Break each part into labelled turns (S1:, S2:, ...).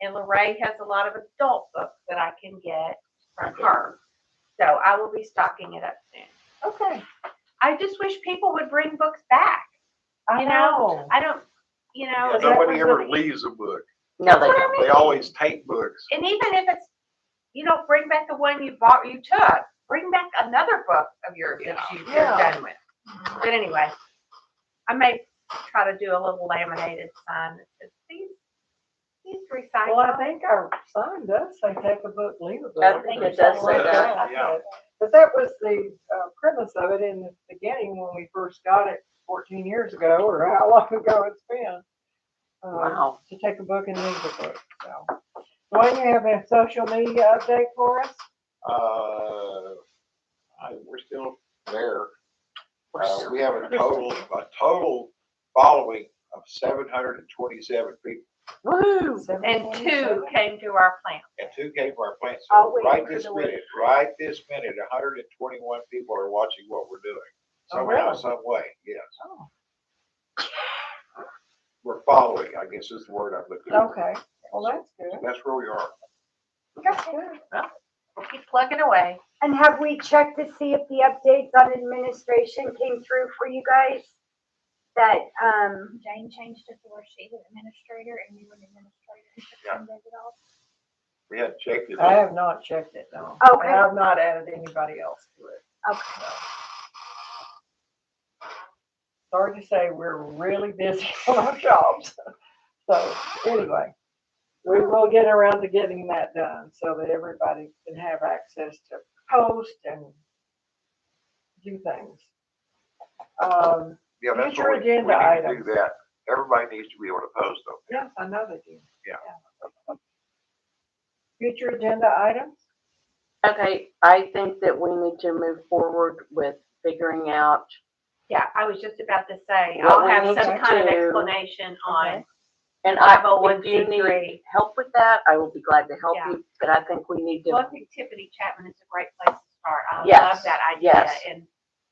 S1: And Lorraine has a lot of adult books that I can get from her. So I will be stocking it up soon.
S2: Okay.
S1: I just wish people would bring books back.
S2: I
S1: You
S2: know.
S1: I don't, you know.
S3: Yeah,
S1: is that
S3: Nobody
S1: what-
S3: ever leaves a book.
S2: No, they
S1: What I
S2: don't.
S3: They always take books.
S1: And even if it's, you know, bring back the one you bought, you took, bring back another book of yours that you- you're
S2: Yeah.
S1: done with. But anyway, I may try to do a little laminated sign that says, please, please
S4: Well, I
S1: recycle.
S4: think our sign does say take a book, leave a book.
S2: I think it does say that.
S3: Yeah.
S4: But that was the uh, premise of it in the beginning when we first got it fourteen years ago or how long ago it's been. uh,
S2: Wow.
S4: To take a book and leave a book, so. Dwayne, you have a social media update for us?
S3: Uh, I, we're still there.
S2: We're
S3: Uh,
S2: still
S3: we have a total, a total following of seven hundred and twenty-seven people.
S2: Woo.
S1: And two came to our plant.
S3: And two came from our plant.
S4: I'll
S3: So
S4: Oh, wait
S3: right
S4: for
S3: this
S4: the
S3: minute, right this minute, hundred and twenty-one people are watching what we're doing.
S4: Oh,
S3: Somehow,
S4: really?
S3: some way, yes.
S4: Oh.
S3: We're following, I guess is the word I'm looking for.
S4: Okay, well, that's good.
S3: That's where we are.
S4: That's good.
S1: We'll keep plugging away.
S5: And have we checked to see if the updates on administration came through for you guys? That, um,
S6: Jane changed it to where she was administrator and you were an administrator. and took
S3: Yeah.
S6: some days off.
S3: We had checked it.
S4: I have not checked it, no.
S5: Okay.
S4: And I've not added anybody else to it.
S5: okay,
S4: Sorry to say, we're really busy on our jobs. So anyway, we will get around to getting that done so that everybody can have access to post and do things. Um,
S3: Yeah, that's
S4: Future
S3: what we, we need
S4: agenda
S3: to
S4: items.
S3: do that. Everybody needs to be able to post them.
S4: yes, I know they do.
S3: Yeah.
S4: Future agenda items?
S2: Okay, I think that we need to move forward with figuring out,
S1: Yeah, I was just about to say,
S2: What
S1: I'll
S2: we
S1: have
S2: need
S1: some
S2: to
S1: kind of
S2: do-
S1: explanation on
S2: and I,
S1: five oh one
S2: if you
S1: C
S2: need
S1: three.
S2: help with that, I will be glad to help
S1: Yeah.
S2: you, but I think we need
S1: Well, I
S2: to,
S1: think Tiffany Chapman is a great place to start. I love
S2: Yes,
S1: that idea.
S2: yes.
S1: And,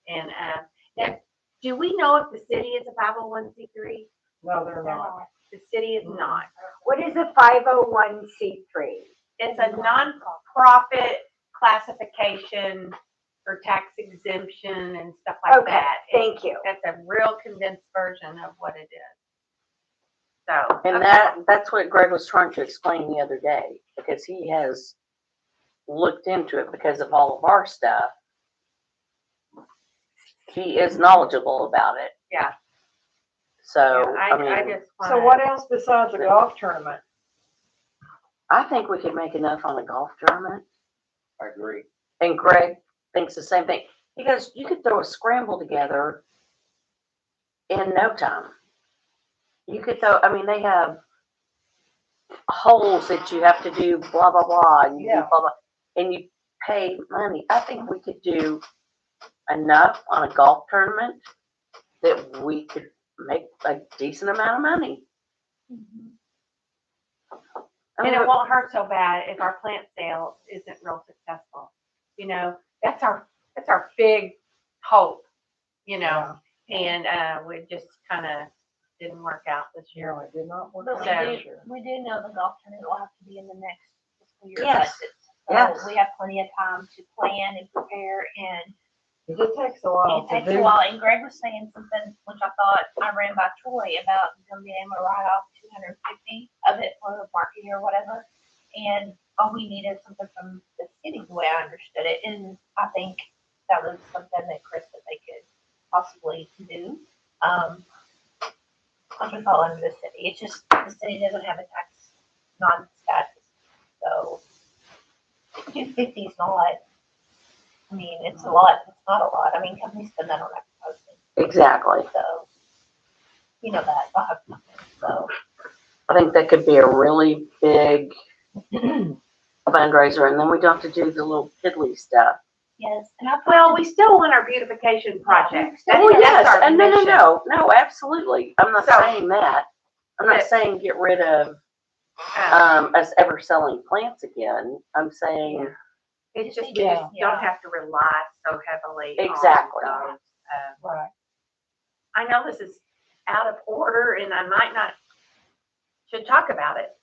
S1: and, um, now, do we know if the city is a five oh one C three?
S4: No, they're not.
S1: The city is not.
S5: what is a five oh one C three?
S1: It's a nonprofit classification for tax exemption and stuff like
S5: Okay,
S1: that.
S5: Thank you.
S1: That's a real condensed version of what it is. So.
S2: and
S1: okay.
S2: that, that's what Greg was trying to explain the other day, because he has looked into it because of all of our stuff. He is knowledgeable about it.
S1: Yeah. Yeah,
S2: So, I
S1: I, I
S2: mean,
S1: just wanna.
S4: So what else besides the golf tournament?
S2: I think we could make enough on a golf tournament.
S3: I agree.
S2: And Greg thinks the same thing. He goes, you could throw a scramble together in no time. You could throw, I mean, they have holes that you have to do blah, blah, blah, and you do
S4: Yeah.
S2: blah, blah, and you pay money. I think we could do enough on a golf tournament that we could make a decent amount of money.
S6: Mm-hmm.
S2: I
S1: And
S2: mean,
S1: it won't hurt so bad if our plant sale isn't real successful. You know, that's our, that's our big hope, you know, and, uh, we just kind of didn't work out this year.
S4: No, it did not work
S6: But
S4: out
S6: we
S1: Okay.
S4: this
S6: do,
S4: year.
S6: we do know the golf tournament will have to be in the next fiscal year.
S2: Yes,
S6: budget.
S2: yes.
S6: So we have plenty of time to plan and prepare and
S4: It just takes a while
S6: It
S4: to
S6: takes a
S4: do.
S6: while, and Greg was saying something which I thought I ran by Troy about them being able to write off two hundred fifty of it for marketing or whatever. And all we needed something from the city, the way I understood it, and I think that was something that Chris said they could possibly do. Um, which would fall under the city, it's just, the city doesn't have a tax non-status, so two fifty is not I mean, it's a lot, it's not a lot, I mean, companies spend that on advertising,
S2: exactly.
S6: so, you know that, I have nothing, so.
S2: I think that could be a really big fundraiser, and then we don't have to do the little piddly stuff.
S6: Yes, and I put,
S1: Well, we still want our beautification project. That's-
S2: Oh,
S1: that's
S2: yes,
S1: our
S2: and no, no,
S1: mission.
S2: no, no, absolutely, I'm not
S1: So-
S2: saying that, I'm not
S1: But-
S2: saying get rid of,
S1: Um,
S2: um, us ever selling plants again, I'm saying,
S1: It's just, you
S4: Yeah.
S1: just don't have to rely so heavily on
S2: Exactly.
S1: those, uh,
S4: Right.
S1: I know this is out of order and I might not, should talk about it,